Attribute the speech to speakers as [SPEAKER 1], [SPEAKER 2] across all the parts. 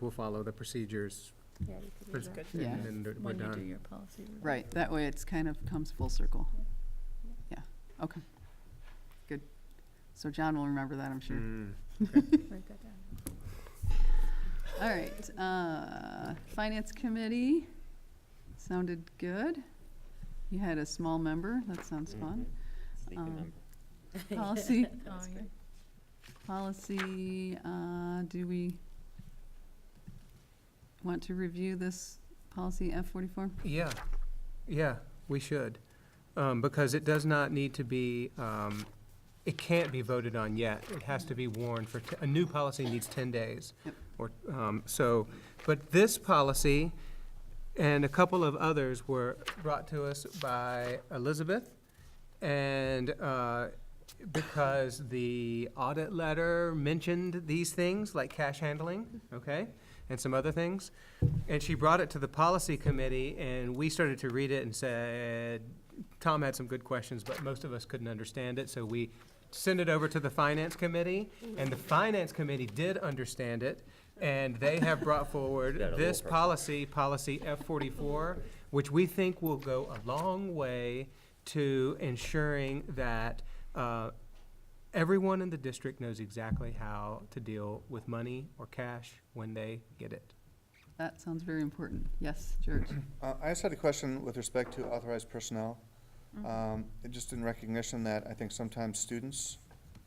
[SPEAKER 1] we'll follow the procedures,
[SPEAKER 2] Yeah, we could do
[SPEAKER 1] That's
[SPEAKER 2] that
[SPEAKER 3] good.
[SPEAKER 1] and
[SPEAKER 4] Yeah.
[SPEAKER 1] then we're
[SPEAKER 2] When you do
[SPEAKER 1] done.
[SPEAKER 2] your policy. review.
[SPEAKER 4] Right, that way it's kind of comes full circle. Yeah, okay. Good. So John will remember that, I'm sure.
[SPEAKER 1] Mm.
[SPEAKER 2] Write that down.
[SPEAKER 4] All right, uh, Finance Committee, sounded good. You had a small member, that sounds fun.
[SPEAKER 3] Sneaky
[SPEAKER 4] Um,
[SPEAKER 3] number.
[SPEAKER 2] Yeah,
[SPEAKER 4] Policy.
[SPEAKER 2] that was Oh, yeah. great.
[SPEAKER 4] Policy, uh, do we want to review this policy F forty-four?
[SPEAKER 1] Yeah, yeah, we should, um, because it does not need to be, um, it can't be voted on yet. It has to be warned for, te- a new policy needs ten days.
[SPEAKER 4] Yep.
[SPEAKER 1] Or, um, so, but this policy and a couple of others were brought to us by Elizabeth. And, uh, because the audit letter mentioned these things, like cash handling, okay? And some other things. And she brought it to the policy committee, and we started to read it and said, Tom had some good questions, but most of us couldn't understand it, so we sent it over to the finance committee, and the finance committee did understand it, and they have brought forward
[SPEAKER 3] Got a little
[SPEAKER 1] this
[SPEAKER 3] personal.
[SPEAKER 1] policy, policy F forty-four, which we think will go a long way to ensuring that, uh, everyone in the district knows exactly how to deal with money or cash when they get it.
[SPEAKER 4] That sounds very important. Yes, George?
[SPEAKER 5] Uh, I just had a question with respect to authorized personnel.
[SPEAKER 6] Mm-hmm.
[SPEAKER 5] Um, and Just in recognition that I think sometimes students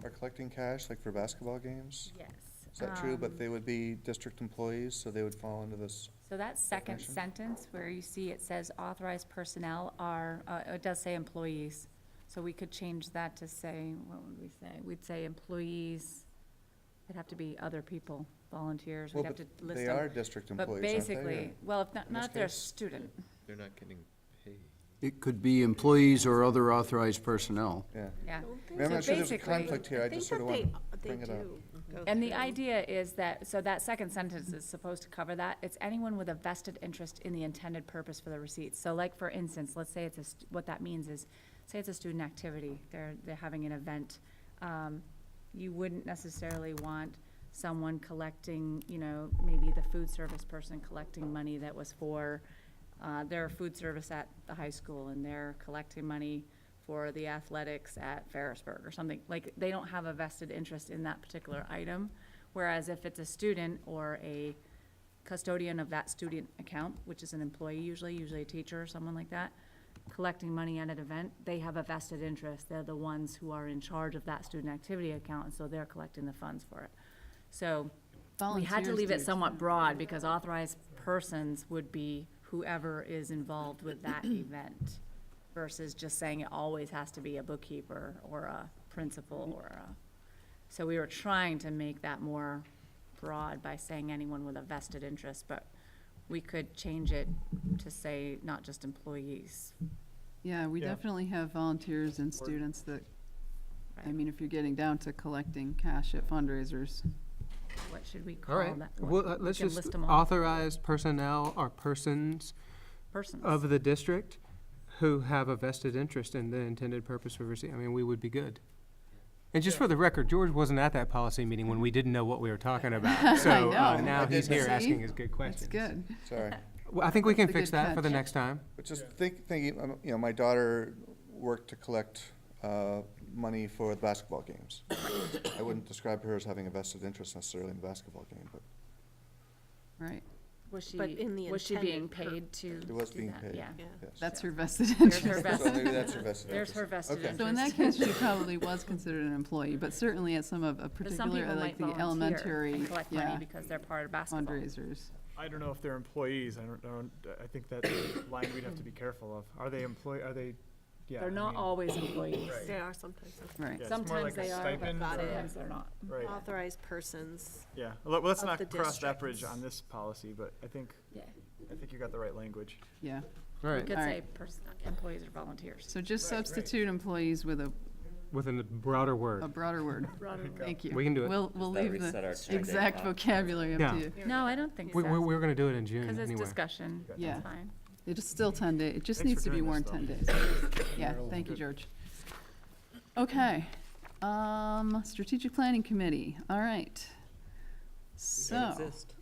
[SPEAKER 5] are collecting cash, like for basketball games.
[SPEAKER 2] Yes.
[SPEAKER 5] Is that true?
[SPEAKER 2] um,
[SPEAKER 5] But they would be district employees, so they would fall into this.
[SPEAKER 6] So that second
[SPEAKER 5] Definition.
[SPEAKER 6] sentence where you see it says authorized personnel are, uh, it does say employees. So we could change that to say, what would we say? We'd say employees, it'd have to be other people, volunteers,
[SPEAKER 5] Well,
[SPEAKER 6] we'd have to
[SPEAKER 5] but
[SPEAKER 6] list
[SPEAKER 5] They
[SPEAKER 6] them.
[SPEAKER 5] are district employees,
[SPEAKER 6] But
[SPEAKER 5] aren't they?
[SPEAKER 6] basically, well, if not,
[SPEAKER 5] in this
[SPEAKER 6] not if they're a
[SPEAKER 5] case?
[SPEAKER 6] student.
[SPEAKER 3] They're not getting paid.
[SPEAKER 7] It could be employees or other authorized personnel.
[SPEAKER 5] Or- Yeah.
[SPEAKER 6] Yeah.
[SPEAKER 5] I mean,
[SPEAKER 6] So
[SPEAKER 5] I'm not sure there's a
[SPEAKER 6] basically-
[SPEAKER 5] conflict here. I just sort of want
[SPEAKER 2] uh,
[SPEAKER 5] to bring it up.
[SPEAKER 6] And the idea is that, so that second sentence is supposed to cover that. It's anyone with a vested interest in the intended purpose for the receipts. So like, for instance, let's say it's a, st- what that means is, say it's a student activity, they're, they're having an event. Um, You wouldn't necessarily want someone collecting, you know, maybe the food service person collecting money that was for, uh, their food service at the high school and they're collecting money for the athletics at Ferrisburg or something. Like, they don't have a vested interest in that particular item. Whereas if it's a student or a custodian of that student account, which is an employee usually, usually a teacher or someone like that, collecting money at an event, they have a vested interest. They're the ones who are in charge of that student activity account, and so they're collecting the funds for it. So we had to
[SPEAKER 4] Volunteers
[SPEAKER 6] leave
[SPEAKER 4] do
[SPEAKER 6] it somewhat broad because authorized persons would be whoever is involved with that event versus just saying it always has to be a bookkeeper or a principal or a, so we were trying to make that more broad by saying anyone with a vested interest, but we could change it to say not just employees.
[SPEAKER 4] Yeah, we
[SPEAKER 1] Yeah.
[SPEAKER 4] definitely have volunteers and students that, I
[SPEAKER 6] Right.
[SPEAKER 4] mean, if you're getting down to collecting cash at fundraisers,
[SPEAKER 6] What should we
[SPEAKER 1] All
[SPEAKER 6] call
[SPEAKER 1] right,
[SPEAKER 6] that?
[SPEAKER 1] well, uh,
[SPEAKER 6] We
[SPEAKER 1] let's
[SPEAKER 6] can
[SPEAKER 1] just
[SPEAKER 6] list 'em all.
[SPEAKER 1] authorized personnel or persons
[SPEAKER 6] Persons.
[SPEAKER 1] of the district who have a vested interest in the intended purpose for receipt, I mean, we would be good. And just for the record, George wasn't at that policy meeting when we didn't know what we were talking about, so uh,
[SPEAKER 4] know.
[SPEAKER 1] now
[SPEAKER 5] I
[SPEAKER 1] he's
[SPEAKER 5] did
[SPEAKER 1] here
[SPEAKER 4] know.
[SPEAKER 1] asking his good
[SPEAKER 4] that's
[SPEAKER 1] questions.
[SPEAKER 4] good.
[SPEAKER 5] Sorry.
[SPEAKER 1] Well, I think we can
[SPEAKER 4] That's a
[SPEAKER 1] fix
[SPEAKER 4] good
[SPEAKER 1] that for the
[SPEAKER 4] catch.
[SPEAKER 1] next time.
[SPEAKER 5] But just think, thinking, um, you know, my daughter worked to collect uh, money for the basketball games. I wouldn't describe her as having a vested interest necessarily in the basketball game, but
[SPEAKER 4] Right,
[SPEAKER 6] Was she,
[SPEAKER 2] But in the
[SPEAKER 6] was she being
[SPEAKER 2] intended per-
[SPEAKER 6] paid to?
[SPEAKER 5] it was
[SPEAKER 6] do
[SPEAKER 5] being
[SPEAKER 6] that?
[SPEAKER 5] paid.
[SPEAKER 6] Yeah.
[SPEAKER 5] yes.
[SPEAKER 4] that's her vested
[SPEAKER 6] There's her
[SPEAKER 4] interest.
[SPEAKER 5] So
[SPEAKER 6] vested
[SPEAKER 5] maybe that's her vested
[SPEAKER 6] There's
[SPEAKER 5] interest.
[SPEAKER 6] her vested
[SPEAKER 5] Okay.
[SPEAKER 6] interest.
[SPEAKER 4] So in that case, she probably was considered an employee, but certainly at some of, a
[SPEAKER 6] But some
[SPEAKER 4] particular,
[SPEAKER 6] people
[SPEAKER 4] like
[SPEAKER 6] might
[SPEAKER 4] the
[SPEAKER 6] volunteer
[SPEAKER 4] elementary,
[SPEAKER 6] and collect money
[SPEAKER 4] yeah,
[SPEAKER 6] because they're part of basketball.
[SPEAKER 4] fundraisers.
[SPEAKER 8] I don't know if they're employees. I don't, I don't, I think that line we'd have to be careful of. Are they employ, are they, yeah.
[SPEAKER 6] They're
[SPEAKER 8] I
[SPEAKER 6] not
[SPEAKER 8] mean,
[SPEAKER 6] always employees.
[SPEAKER 8] Right.
[SPEAKER 2] They are sometimes
[SPEAKER 4] Right,
[SPEAKER 8] Yeah, it's more
[SPEAKER 6] Sometimes
[SPEAKER 8] like a
[SPEAKER 6] they are, but
[SPEAKER 8] stipend
[SPEAKER 2] Got
[SPEAKER 8] or-
[SPEAKER 2] it.
[SPEAKER 6] sometimes they're not.
[SPEAKER 8] Right,
[SPEAKER 2] authorized persons.
[SPEAKER 8] yeah. Well, let's
[SPEAKER 2] Of
[SPEAKER 8] not
[SPEAKER 2] the
[SPEAKER 8] cross that bridge
[SPEAKER 2] districts.
[SPEAKER 8] on this policy, but I think,
[SPEAKER 6] Yeah.
[SPEAKER 8] I think you got the right language.
[SPEAKER 4] yeah.
[SPEAKER 1] All
[SPEAKER 6] We
[SPEAKER 1] right,
[SPEAKER 6] could
[SPEAKER 4] All
[SPEAKER 6] say
[SPEAKER 4] right.
[SPEAKER 6] pers- employees or volunteers.
[SPEAKER 4] So just substitute employees with a,
[SPEAKER 1] with a broader
[SPEAKER 4] a
[SPEAKER 1] word.
[SPEAKER 4] broader word. Thank you.
[SPEAKER 1] We can do it.
[SPEAKER 4] We'll, we'll
[SPEAKER 3] Does that
[SPEAKER 4] leave
[SPEAKER 3] reset our
[SPEAKER 4] the
[SPEAKER 3] check-in
[SPEAKER 4] exact
[SPEAKER 3] box?
[SPEAKER 4] vocabulary up
[SPEAKER 1] Yeah.
[SPEAKER 4] to you.
[SPEAKER 6] No, I don't think
[SPEAKER 1] We, we
[SPEAKER 6] so.
[SPEAKER 1] we were gonna do it in June
[SPEAKER 6] Because it's
[SPEAKER 1] anyway.
[SPEAKER 6] discussion. That's
[SPEAKER 4] Yeah.
[SPEAKER 6] fine.
[SPEAKER 4] It is still ten days. it just
[SPEAKER 8] Thanks
[SPEAKER 4] needs
[SPEAKER 8] for
[SPEAKER 4] to be
[SPEAKER 8] doing
[SPEAKER 4] worn
[SPEAKER 8] this,
[SPEAKER 4] ten
[SPEAKER 8] though.
[SPEAKER 4] days. Yeah, thank you, George. Okay, um, strategic planning committee, all right. So,
[SPEAKER 3] exist.